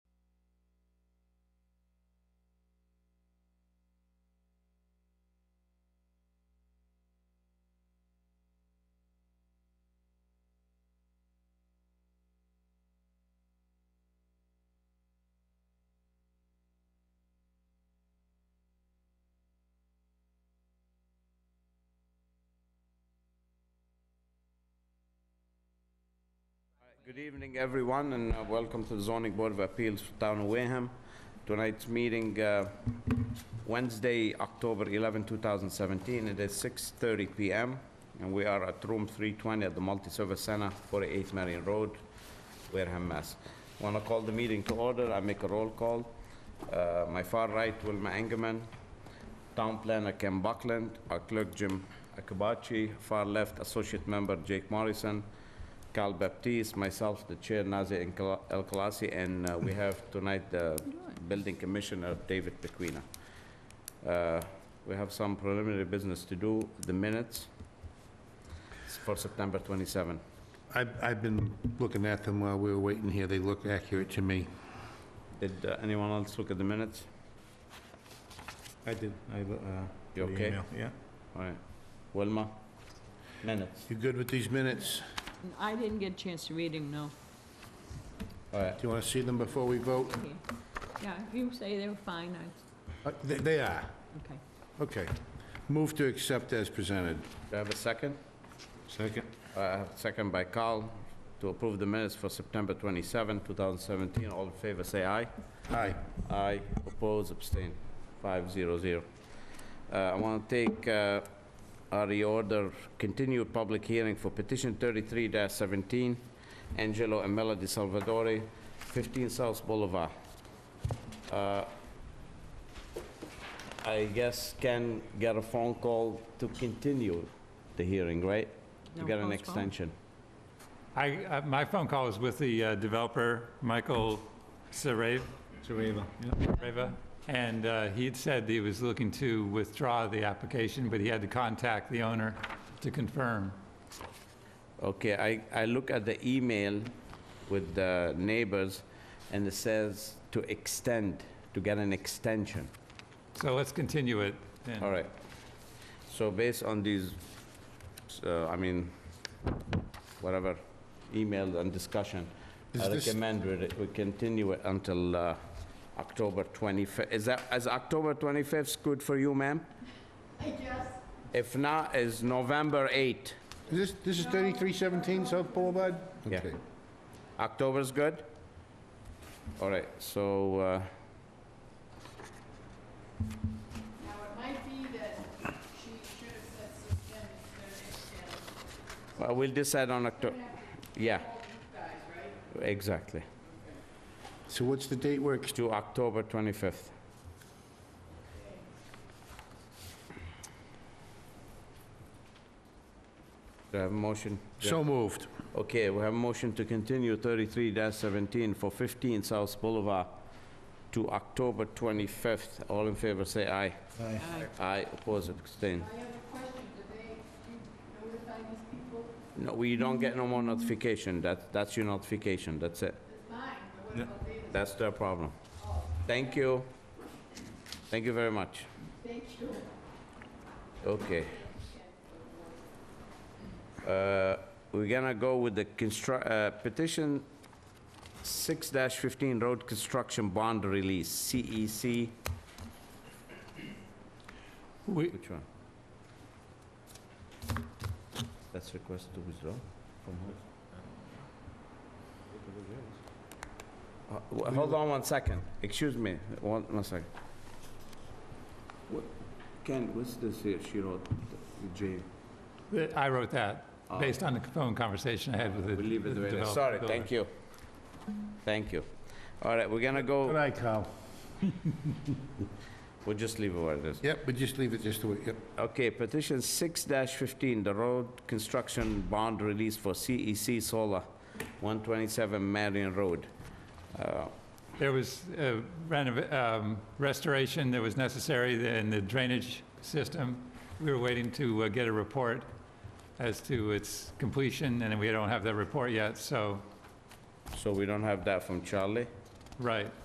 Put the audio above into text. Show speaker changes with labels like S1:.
S1: Good evening, everyone, and uh, welcome to the zoning board of appeals for town of Wareham. Tonight's meeting, uh, Wednesday, October 11, 2017, it is 6:30 PM, and we are at room 320 at the multi-service center, 48 Marion Road, Wareham, Mass. Want to call the meeting to order, I make a roll call. Uh, My far right, Wilma Engerman, Town planner Ken Buckland, our clerk Jim Akabachi, far left associate member Jake Morrison, Carl Baptiste, myself, the chair Nazir Enkala- El Khalasi, and uh, we have tonight the building commissioner David Pequina. Uh, We have some preliminary business to do, the minutes for September 27.
S2: I've, I've been looking at them while we were waiting here. They look accurate to me.
S1: Did uh, anyone else look at the minutes?
S2: I uh, did.
S1: You okay?
S2: Yeah.
S1: All right. Wilma? Minutes.
S2: You good with these minutes?
S3: I didn't get a chance to read them, no.
S1: All right.
S2: Do you want to see them before we vote?
S3: Okay. Yeah, if you say they were fine, I,
S2: Uh, They they are.
S3: okay.
S2: Okay. Move to accept as presented.
S1: Do I have a second?
S2: Second.
S1: Uh, Second by Carl, to approve the minutes for September 27, 2017. All in favor, say aye.
S2: Aye.
S1: Aye, oppose, abstain, five zero zero. Uh, I want to take uh, a reorder, continued public hearing for petition 33-17, Angelo and Melody Salvatore, 15 South Boulevard. Uh, I guess can get a phone call to continue the hearing, right? To
S3: No,
S1: get an
S3: postpone.
S1: extension.
S4: I, uh, my phone call was with the uh, developer, Michael Sarave,
S2: Saraiva.
S4: Sareva, and uh, he had said he was looking to withdraw the application, but he had to contact the owner to confirm.
S1: Okay, I, I look at the email with the neighbors, and it says to extend, to get an extension.
S4: So let's continue it. then.
S1: All right. So based on these, uh, I mean, whatever, email and discussion,
S2: Is
S1: I
S2: this-
S1: recommend we we continue it until uh, October 25th. Is that, is October 25th good for you, ma'am? Yes. If not, is November 8th.
S2: Is This, this is 3317 South Boulevard?
S1: Yeah.
S2: Okay.
S1: October's good? All right, so, uh,
S5: Now, it might be that she should have said suspend instead of extend.
S1: well, we'll decide on October, yeah. Exactly,
S2: So what's the date we're, ex-
S1: to October 25th. Do I have a motion?
S2: so moved.
S1: Okay, we have a motion to continue 33-17 for 15 South Boulevard to October 25th. All in favor, say aye.
S3: Aye.
S1: Aye, oppose, abstain.
S5: I have a question, do they, do you notify these people?
S1: No, we don't get no more notification. That, that's your notification, that's it.
S5: It's mine, but what about they,
S1: That's their problem. Thank you. Thank you very much.
S5: thank you.
S1: Okay. Uh, We're gonna go with the constru- uh, petition 6-15 road construction bond release, E CEC.
S4: We,
S1: Which one? That's request to withdraw from who? Uh, w- Hold on one second, excuse me, one, one second. What- Ken, what's this here, she wrote, J?
S4: I wrote that, based on the phone conversation I had with the
S1: We'll leave it the way it is.
S4: developer.
S1: Sorry, thank you. Thank you. All right, we're gonna
S2: Good
S1: go,
S2: eye, Carl.
S1: we'll just leave it where it is.
S2: Yep, but just leave it just the way, yep.
S1: Okay, petition 6-15, the road construction bond release for CEC Solar, 127 Marion Road. Uh,
S4: There was uh, renov- um, restoration that was necessary in the drainage system. We were waiting to uh, get a report as to its completion, and we don't have that report yet, so,
S1: So we don't have that from Charlie?
S4: right.